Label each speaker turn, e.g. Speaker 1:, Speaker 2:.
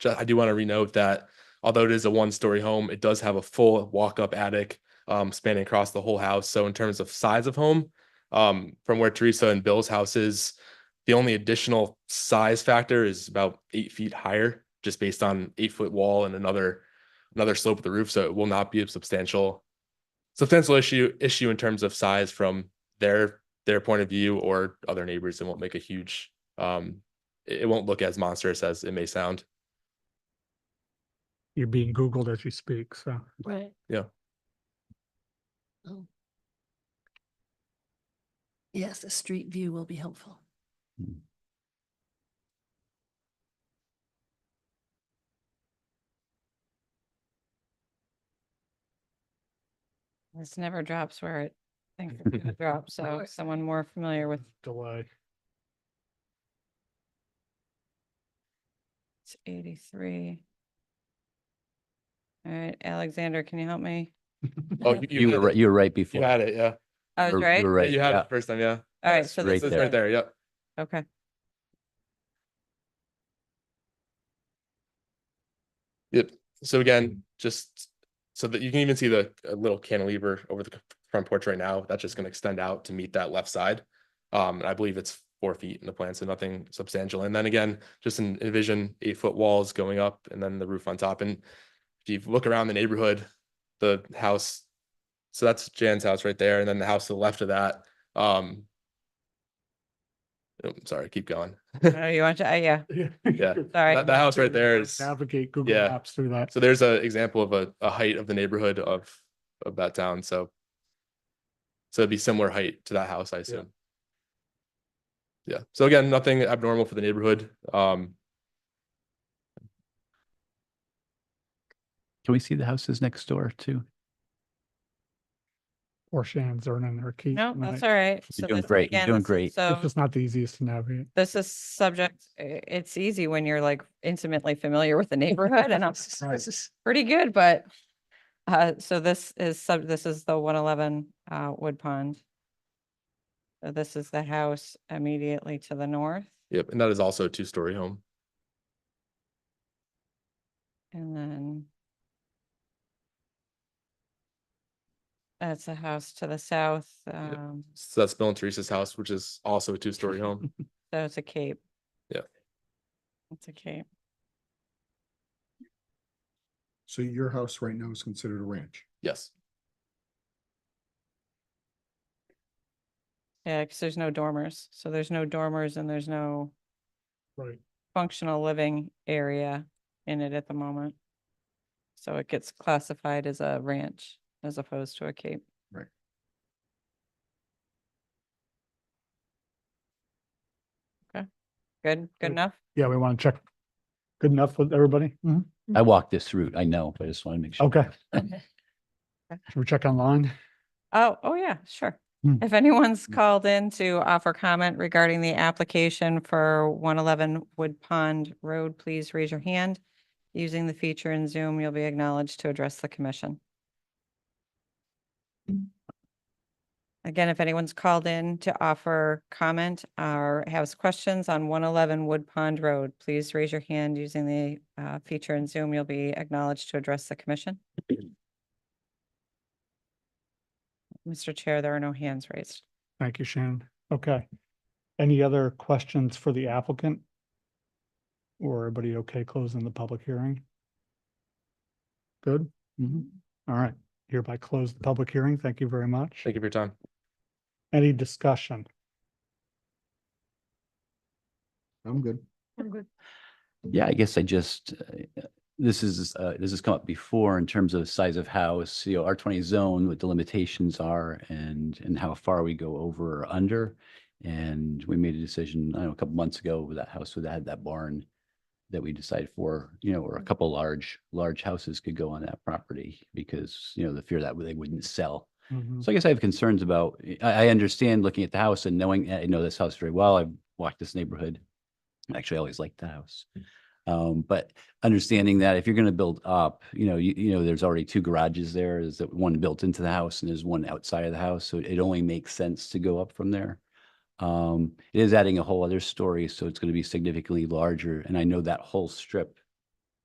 Speaker 1: Ju- I do want to renote that although it is a one-story home, it does have a full walk-up attic um, spanning across the whole house. So in terms of size of home, um, from where Teresa and Bill's house is, the only additional size factor is about eight feet higher, just based on eight-foot wall and another another slope of the roof. So it will not be a substantial substantial issue issue in terms of size from their their point of view or other neighbors. It won't make a huge um, it, it won't look as monstrous as it may sound.
Speaker 2: You're being Googled as you speak, so.
Speaker 3: Right.
Speaker 1: Yeah.
Speaker 3: Oh. Yes, a street view will be helpful.
Speaker 4: This never drops where it thinks it's gonna drop, so
Speaker 3: Right.
Speaker 4: someone more familiar with
Speaker 2: Delay.
Speaker 4: it's eighty-three. All right, Alexander, can you help me?
Speaker 1: Oh, you,
Speaker 5: You were,
Speaker 1: had,
Speaker 5: right- you were right
Speaker 1: you
Speaker 5: before.
Speaker 1: had it, yeah.
Speaker 4: I
Speaker 5: You
Speaker 4: was
Speaker 5: were-
Speaker 4: Oh, right?
Speaker 5: You were
Speaker 4: All
Speaker 1: Yeah,
Speaker 5: right,
Speaker 1: You had
Speaker 5: yeah.
Speaker 1: it first time, yeah.
Speaker 4: right, so
Speaker 5: right
Speaker 4: this
Speaker 1: It's
Speaker 4: is
Speaker 1: right there, yep.
Speaker 4: Okay.
Speaker 1: Yep. So
Speaker 4: Mm-hmm.
Speaker 1: again, just so that you can even see the uh, little cantilever over the c- front porch right now, that's just gonna extend out to meet that left side. Um, and I believe it's four feet in the plan, so nothing substantial. And then again, just en- envision eight foot walls going up and then the roof on top. And if you look around the neighborhood, the house, so that's Jan's house right there, and then the house to the left of that, um. oh, Sorry, keep going.
Speaker 4: Oh, you want to, uh, yeah,
Speaker 1: Yeah.
Speaker 4: sorry.
Speaker 1: That- the house right there is-
Speaker 2: Navigate Google
Speaker 1: yeah.
Speaker 2: Maps through that.
Speaker 1: So there's a example of a, a height of the neighborhood of, of that town, so. So it'd be similar height to that house, I assume. Yeah, so again, nothing abnormal for the neighborhood, um,
Speaker 5: Can we see the houses next door too?
Speaker 2: Or Shan's earning her keep.
Speaker 4: No,
Speaker 2: tonight.
Speaker 4: that's all right. So
Speaker 5: doing
Speaker 4: this is
Speaker 5: great. You're
Speaker 4: again,
Speaker 5: doing
Speaker 4: this is-
Speaker 5: great. It's
Speaker 2: It's
Speaker 1: um,
Speaker 4: So
Speaker 2: just not the easiest to navigate.
Speaker 4: this is subject, i- it's easy when you're like intimately familiar with the neighborhood and I'm s-
Speaker 2: Right.
Speaker 4: pretty good, but. Uh, so this is sub, this is the one eleven, uh, Wood Pond. So this is the house immediately to the north
Speaker 1: yep, and that is also a two-story home.
Speaker 4: and then. That's a house to the south, um,
Speaker 1: So that's Bill and Teresa's house, which is also a two-story home.
Speaker 4: so it's a cape.
Speaker 1: Yeah.
Speaker 4: It's a cape.
Speaker 6: So your house right now is considered a ranch.
Speaker 1: Yes,
Speaker 4: Yeah, because there's no dormers. So there's no dormers and there's no
Speaker 2: Right.
Speaker 4: functional living area in it at the moment. So it gets classified as a ranch as opposed to a cape.
Speaker 6: Right.
Speaker 4: Okay, good,
Speaker 2: Good.
Speaker 4: good enough?
Speaker 2: Yeah, we want to check. Good enough with everybody? Mhm.
Speaker 5: I walked this route. I know, but I just want to make sure.
Speaker 2: Okay. Should we check online?
Speaker 4: Oh, oh yeah, sure.
Speaker 2: Hmm.
Speaker 4: If anyone's called in to offer comment regarding the application for one eleven Wood Pond Road, please raise your hand. Using the feature in Zoom, you'll be acknowledged to address the commission. Again, if anyone's called in to offer comment or has questions on one eleven Wood Pond Road, please raise your hand using the uh, feature in Zoom. You'll be acknowledged to address the commission. Mr. Chair, there are no hands raised.
Speaker 2: Thank you, Shannon. Okay. Any other questions for the applicant? Or everybody okay closing the public hearing? Good? Mhm. All right. Hereby close the public hearing. Thank you very much.
Speaker 1: thank you for your time.
Speaker 2: Any discussion?
Speaker 6: I'm good.
Speaker 5: Yeah, I guess I just, uh, this is, uh, this has come up before in terms of size of house, you know, R twenty zone, what the limitations are and, and how far we go over or under. And we made a decision, I don't know, a couple months ago with that house that had that barn that we decided for, you know, or a couple large, large houses could go on that property because, you know, the fear that they wouldn't sell.
Speaker 2: Mhm.
Speaker 5: So I guess I have concerns about, I, I understand looking at the house and knowing, I know this house very well. I've walked this neighborhood. Actually, I always liked the house. Um, but understanding that if you're gonna build up, you know, you, you know, there's already two garages there, is that one built into the house and there's one outside of the house, so it only makes sense to go up from there. Um, it is adding a whole other story, so it's gonna be significantly larger, and I know that whole strip